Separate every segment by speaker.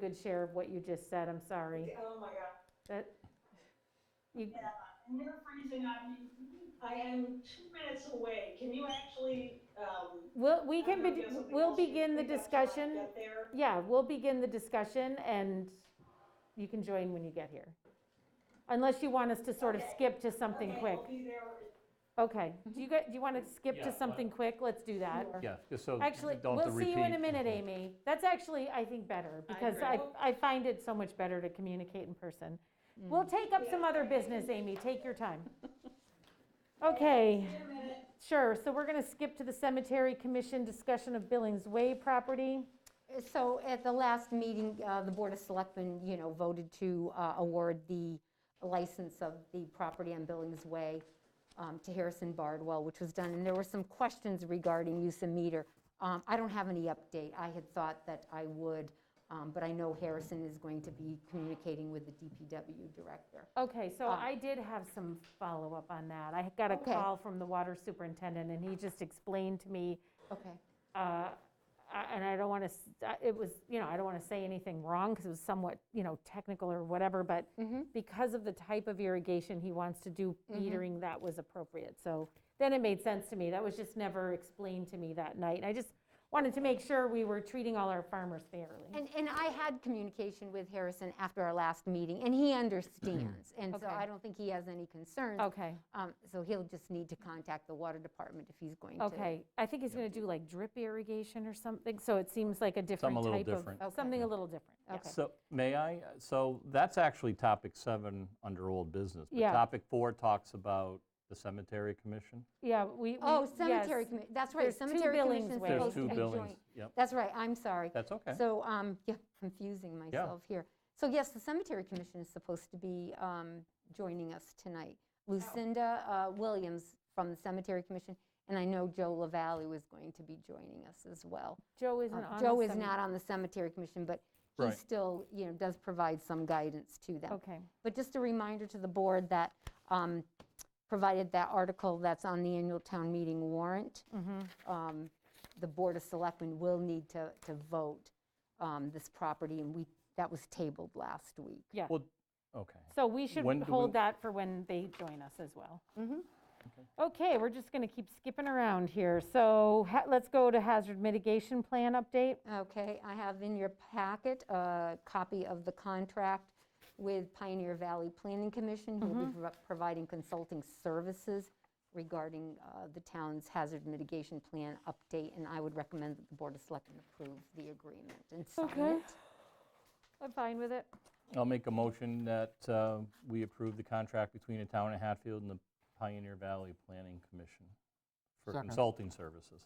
Speaker 1: good share of what you just said, I'm sorry.
Speaker 2: Oh, my God.
Speaker 1: That, you,
Speaker 2: And you're freezing on me. I am two minutes away. Can you actually, um?
Speaker 1: we'll, we
Speaker 2: I
Speaker 1: can,
Speaker 2: know
Speaker 1: be-
Speaker 2: there's something
Speaker 1: we'll
Speaker 2: else you
Speaker 1: begin the
Speaker 2: think of till I
Speaker 1: discussion.
Speaker 2: Get there.
Speaker 1: Yeah, we'll begin the discussion and you can join when you get here. Unless you want us to sort of
Speaker 2: Okay.
Speaker 1: skip to something quick.
Speaker 2: Okay, I'll be there.
Speaker 1: Okay, do you, gu- do you want to skip
Speaker 3: Yeah,
Speaker 1: to
Speaker 3: but-
Speaker 1: something quick? Let's do that.
Speaker 3: Yeah, just so.
Speaker 1: Actually,
Speaker 3: don't have to
Speaker 1: we'll see you in a
Speaker 3: repeat.
Speaker 1: minute, Amy. That's actually, I think, better, because I,
Speaker 2: agree.
Speaker 1: I find it so much better to communicate in person.
Speaker 2: Mm.
Speaker 1: We'll take up some other business, Amy, take your time. Okay,
Speaker 2: In a minute.
Speaker 1: sure, so we're gonna skip to the cemetery commission discussion of Billings Way property.
Speaker 4: So at the last meeting, uh, the Board of Selectmen, you know, voted to uh, award the license of the property on Billings Way um, to Harrison Bardwell, which was done, and there were some questions regarding use of meter. Um, I don't have any update. I had thought that I would, um, but I know Harrison is going to be communicating with the DPW director.
Speaker 1: Okay, so
Speaker 4: Um,
Speaker 1: I did have some follow-up on that. I got a
Speaker 4: Okay.
Speaker 1: call from the water superintendent, and he just explained to me,
Speaker 4: Okay.
Speaker 1: uh, I- and I don't want to, it was, you know, I don't want to say anything wrong, because it was somewhat, you know, technical or whatever, but because of the type of irrigation he wants to do, metering that was appropriate. So then it made sense to me. That was just never explained to me that night. And I just wanted to make sure we were treating all our farmers fairly.
Speaker 4: And, and I had communication with Harrison after our last meeting, and he understands, and so
Speaker 1: Okay.
Speaker 4: I don't think he has any concerns.
Speaker 1: Okay,
Speaker 4: Um, So he'll just need to contact the water department if he's going to.
Speaker 1: okay. I think he's going to do like drip irrigation or something, so it seems like a different
Speaker 3: Something a
Speaker 1: type of.
Speaker 3: little different.
Speaker 4: Okay.
Speaker 1: Something a little different, yeah.
Speaker 4: Okay.
Speaker 3: So, may I? So that's actually topic seven under old business. but
Speaker 1: Yeah.
Speaker 3: Topic four talks about the cemetery commission.
Speaker 1: Yeah, we. we-
Speaker 4: Oh, cemetery
Speaker 1: yes.
Speaker 4: commi, that's right,
Speaker 1: There's two
Speaker 4: cemetery
Speaker 1: billings
Speaker 4: commission's
Speaker 1: ways.
Speaker 3: There's
Speaker 4: supposed to
Speaker 3: two
Speaker 4: be
Speaker 3: buildings.
Speaker 4: joint.
Speaker 3: Yep,
Speaker 4: That's right, I'm sorry.
Speaker 3: that's okay.
Speaker 4: So, um, yeah, confusing myself here. So yes, the cemetery commission is supposed to be um, joining us tonight. Lucinda uh, Williams from the cemetery commission, and I know Joe LaValle was going to be joining us as well.
Speaker 1: Joe isn't
Speaker 4: Um,
Speaker 1: on. the
Speaker 4: Joe is
Speaker 1: semi-
Speaker 4: not on the cemetery commission, but he
Speaker 3: Right.
Speaker 4: still, you know, does provide some guidance to them.
Speaker 1: Okay,
Speaker 4: But just a reminder to the board that, um, provided that article that's on the annual town meeting warrant, um, the Board of Selectmen will need to, to vote um, this property, and we, that was tabled last week.
Speaker 1: yeah.
Speaker 3: Well, okay.
Speaker 1: So we should
Speaker 3: when do we-
Speaker 1: hold that for when they join us as well.
Speaker 4: Mm-hmm.
Speaker 1: Okay, we're just going to keep skipping around here. So ha- let's go to hazard mitigation plan update.
Speaker 4: Okay, I have in your packet a copy of the contract with Pioneer Valley Planning Commission, who will
Speaker 1: Mm-hmm.
Speaker 4: be pro- providing consulting services regarding uh, the town's hazard mitigation plan update, and I would recommend that the Board of Selectmen approve the agreement and
Speaker 1: Okay.
Speaker 4: sign it.
Speaker 1: I'm fine with it.
Speaker 3: I'll make a motion that uh, we approve the contract between the town of Hatfield and the Pioneer Valley Planning Commission for
Speaker 5: Second.
Speaker 3: consulting services.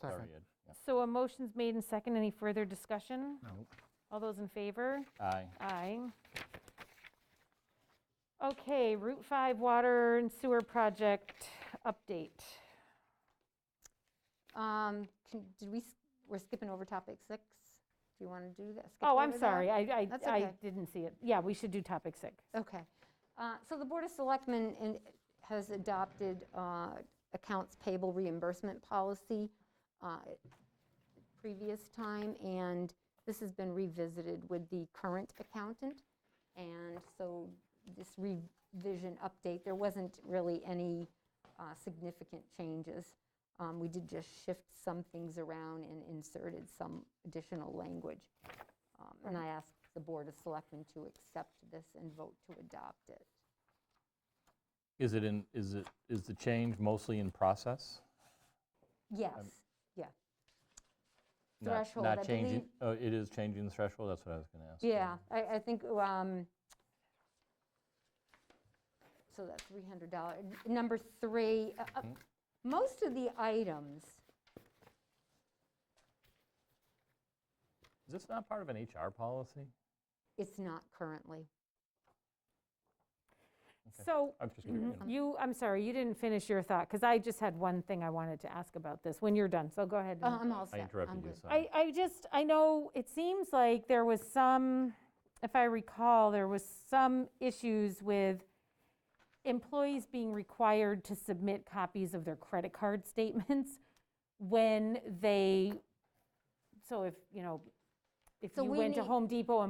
Speaker 3: Sorry,
Speaker 5: Second.
Speaker 3: Ed. Yeah.
Speaker 1: So a motion's made and second. Any further discussion?
Speaker 3: Nope.
Speaker 1: All those in favor?
Speaker 3: Aye.
Speaker 1: Aye. Okay, Route 5 water and sewer project update.
Speaker 4: Um, can- Did we, s- we're skipping over topic six? Do you want to do that? skip
Speaker 1: Oh, I'm
Speaker 4: over that?
Speaker 1: sorry. I,
Speaker 4: That's
Speaker 1: I, I
Speaker 4: okay.
Speaker 1: didn't see it. Yeah, we should do topic six.
Speaker 4: Okay. Uh, So the Board of Selectmen in- has adopted uh, accounts payable reimbursement policy uh, previous time, and this has been revisited with the current accountant. And so this revision update, there wasn't really any uh, significant changes. Um, We did just shift some things around and inserted some additional language. Um, And I asked the Board of Selectmen to accept this and vote to adopt it.
Speaker 3: Is it in, is it, is the change mostly in process? Um,
Speaker 4: Yes, yeah,
Speaker 3: Not-
Speaker 4: Threshold, I
Speaker 3: Not changing,
Speaker 4: believe-
Speaker 3: oh, it is changing the threshold, that's what I was going to ask.
Speaker 4: yeah, I, I think, um, so that's $300. Number three, uh, uh,
Speaker 3: Mm-hmm.
Speaker 4: most of the items,
Speaker 3: Is this not part of an HR policy?
Speaker 4: it's not currently.
Speaker 1: So
Speaker 3: I'm
Speaker 4: Mm-hmm.
Speaker 3: just curious.
Speaker 1: You, I'm sorry, you didn't finish your thought, because I just had one thing I wanted to ask about this, when you're done, so go ahead.
Speaker 4: Uh,
Speaker 1: and-
Speaker 4: I'm all
Speaker 3: I
Speaker 4: set. I'm
Speaker 3: interrupted you,
Speaker 4: good.
Speaker 3: sorry.
Speaker 1: I, I just, I know, it seems like there was some, if I recall, there was some issues with employees being required to submit copies of their credit card statements when they, so if, you know, if
Speaker 4: So
Speaker 1: you
Speaker 4: we
Speaker 1: went to
Speaker 4: need-
Speaker 1: Home Depot and